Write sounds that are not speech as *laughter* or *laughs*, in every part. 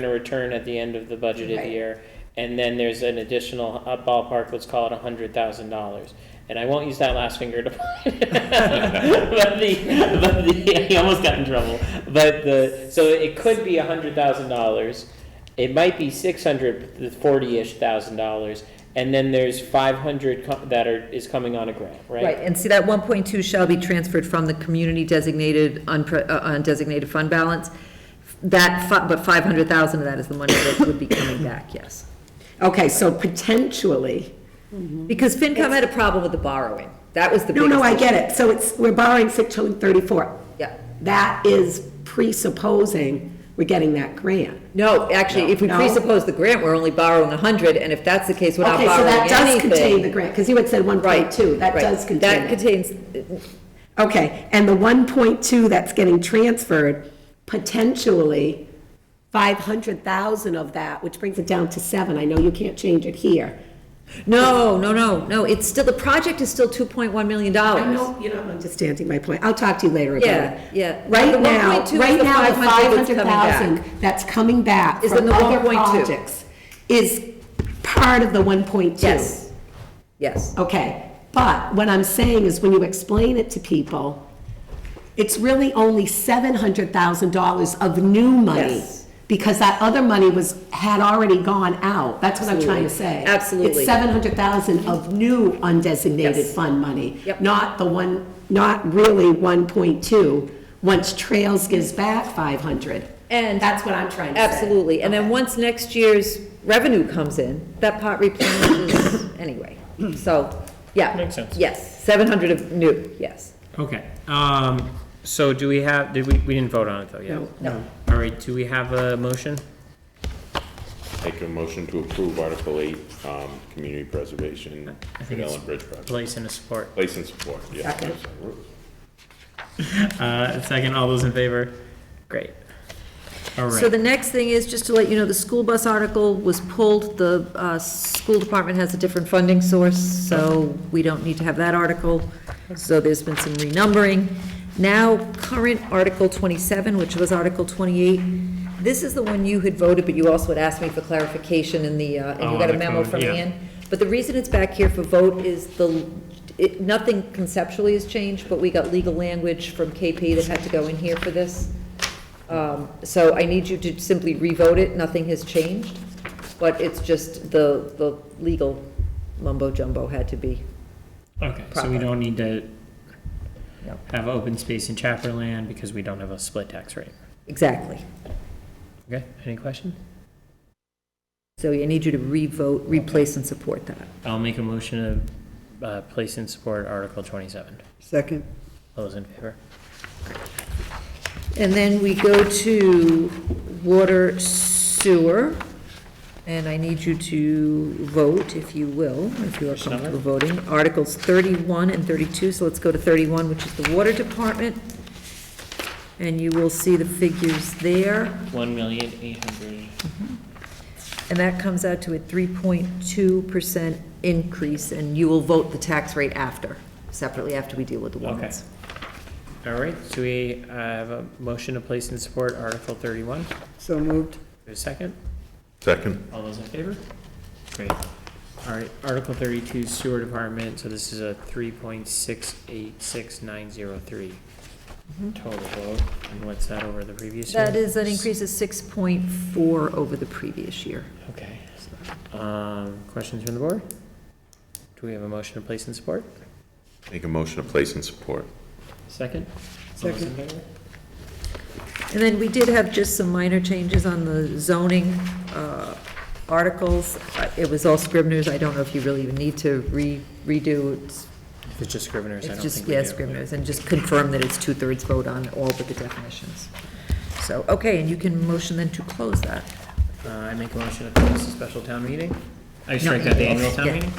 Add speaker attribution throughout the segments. Speaker 1: gonna return at the end of the budgeted
Speaker 2: Right.
Speaker 1: year. And then there's an additional uh, ballpark, let's call it a hundred thousand dollars. And I won't use that last finger to. *laughs* But the, but the, *laughs* he almost got in trouble. But the, so it could be a hundred thousand dollars. It might be six hundred forty-ish thousand dollars. And then there's five hundred that are, is coming on a grant,
Speaker 2: Right,
Speaker 1: right?
Speaker 2: and see, that 1.2 shall be transferred from the community designated, unpre- uh, undesignated fund balance. That, fu- but 500,000 of that is the money that would be coming back, yes.
Speaker 3: Okay, so potentially,
Speaker 2: Because FinCom had a problem with the borrowing. That was the
Speaker 3: no,
Speaker 2: biggest.
Speaker 3: no, I
Speaker 2: issue.
Speaker 3: get it. So it's, we're borrowing 634.
Speaker 2: Yeah.
Speaker 3: That is presupposing we're getting that grant.
Speaker 2: No, actually, if we
Speaker 3: No.
Speaker 2: presuppose the grant, we're only borrowing 100, and if that's the case, we're not
Speaker 3: Okay, so
Speaker 2: borrowing
Speaker 3: that
Speaker 2: anything.
Speaker 3: does contain the grant, because you had said 1.2. That
Speaker 2: Right,
Speaker 3: does contain
Speaker 2: That
Speaker 3: it.
Speaker 2: contains,
Speaker 3: Okay, and the 1.2 that's getting transferred, potentially 500,000 of that, which brings it down to seven. I know you can't change it here.
Speaker 2: no, no, no, no, it's still, the project is still 2.1 million dollars.
Speaker 3: I know you're not understanding my point. I'll talk to you later about
Speaker 2: Yeah,
Speaker 3: it.
Speaker 2: yeah. The
Speaker 3: Right now,
Speaker 2: 1.2 is
Speaker 3: right
Speaker 2: the
Speaker 3: now, the
Speaker 2: 500 that's coming back.
Speaker 3: 500,000 that's coming back
Speaker 2: Is in
Speaker 3: from
Speaker 2: the
Speaker 3: other
Speaker 2: 1.2.
Speaker 3: projects is part of the 1.2.
Speaker 2: Yes, yes.
Speaker 3: Okay, but what I'm saying is when you explain it to people, it's really only $700,000 of new money.
Speaker 2: Yes.
Speaker 3: Because that other money was, had already gone out. That's what I'm trying to say.
Speaker 2: Absolutely.
Speaker 3: It's 700,000 of new undesignated
Speaker 2: Yes.
Speaker 3: fund money.
Speaker 2: Yep.
Speaker 3: Not the one, not really 1.2, once Trails gives back 500.
Speaker 2: And-
Speaker 3: That's what I'm trying to say.
Speaker 2: Absolutely, and then
Speaker 3: Okay.
Speaker 2: once next year's revenue comes in, that pot replenishes *coughs* anyway. So, yeah.
Speaker 4: Makes sense.
Speaker 2: Yes, 700 of new, yes.
Speaker 4: Okay, um, so do we have, did we, we didn't vote on it though yet?
Speaker 2: No.
Speaker 4: All right, do we have a motion?
Speaker 5: Make a motion to approve Article 8, um, Community Preservation,
Speaker 4: think it's-
Speaker 5: Fidelis Bridge Project.
Speaker 4: Place and a support.
Speaker 5: Place and support, yeah.
Speaker 3: Second.
Speaker 4: Uh, second, all those in favor? Great. All
Speaker 2: So the
Speaker 4: right,
Speaker 2: next thing is, just to let you know, the school bus article was pulled. The uh, school department has a different funding source, so we don't need to have that article. So there's been some renumbering. Now, current Article 27, which was Article 28, this is the one you had voted, but you also had asked me for clarification in the, uh, and
Speaker 4: Oh,
Speaker 2: you got a
Speaker 4: on the
Speaker 2: memo
Speaker 4: code,
Speaker 2: from
Speaker 4: yeah.
Speaker 2: Ann. But the reason it's back here for vote is the, it- nothing conceptually has changed, but we got legal language from KP that had to go in here for this. Um, So I need you to simply revote it, nothing has changed, but it's just the, the legal mumbo jumbo had to be.
Speaker 4: okay, so we
Speaker 2: proper.
Speaker 4: don't need to
Speaker 2: No.
Speaker 4: have open space in Chaperland because we don't have a split tax rate.
Speaker 2: Exactly.
Speaker 4: Okay, any question?
Speaker 2: So I need you to revote, replace and support that.
Speaker 4: I'll make a motion to, uh, place and support Article twenty-seven.
Speaker 6: Second.
Speaker 4: All those in favor?
Speaker 2: And then we go to water sewer, and I need you to vote, if you will, if you are comfortable voting. Articles 31 and 32, so let's go to 31, which is the water department. And you will see the figures there.
Speaker 4: One million, eight hundred.
Speaker 2: And that comes out to a 3.2% increase, and you will vote the tax rate after, separately after we deal with the warrants.
Speaker 4: All right, so we uh, have a motion to place and support Article thirty-one.
Speaker 6: So moved.
Speaker 4: There's a second?
Speaker 5: Second.
Speaker 4: All those in favor? Great. All right, Article thirty-two sewer department, so this is a three point six eight six nine zero three total vote. And what's that over the previous year?
Speaker 2: Mm-hmm. That is an increase of 6.4 over the previous year.
Speaker 4: Okay. Um, questions from the board? Do we have a motion to place and support?
Speaker 5: Make a motion to place and support.
Speaker 4: Second? All those in favor?
Speaker 2: And then we did have just some minor changes on the zoning uh, articles. Uh, It was all Scribner's, I don't know if you really even need to re redo, it's
Speaker 4: If it's just scriveners, I
Speaker 2: it's
Speaker 4: don't
Speaker 2: just,
Speaker 4: think we
Speaker 2: yeah,
Speaker 4: do.
Speaker 2: Scribner's, and just confirm that it's two-thirds vote on all but the definitions. So, okay, and you can motion then to close that.
Speaker 4: Uh, I make a motion to close the special town meeting. I strike
Speaker 2: you
Speaker 4: out the
Speaker 2: did.
Speaker 4: annual town
Speaker 2: Yeah.
Speaker 4: meeting.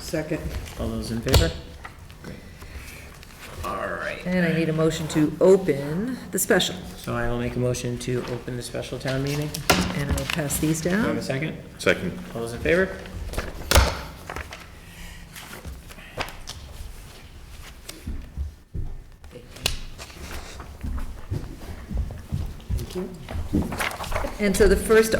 Speaker 6: Second.
Speaker 4: All those in favor? Great. All right.
Speaker 2: And I need a motion to open the special,
Speaker 4: So I will make a motion to open the special town meeting. Do
Speaker 2: and I'll pass these
Speaker 4: I have
Speaker 2: down.
Speaker 4: a second?
Speaker 5: Second.
Speaker 4: All those in favor?
Speaker 2: And so the first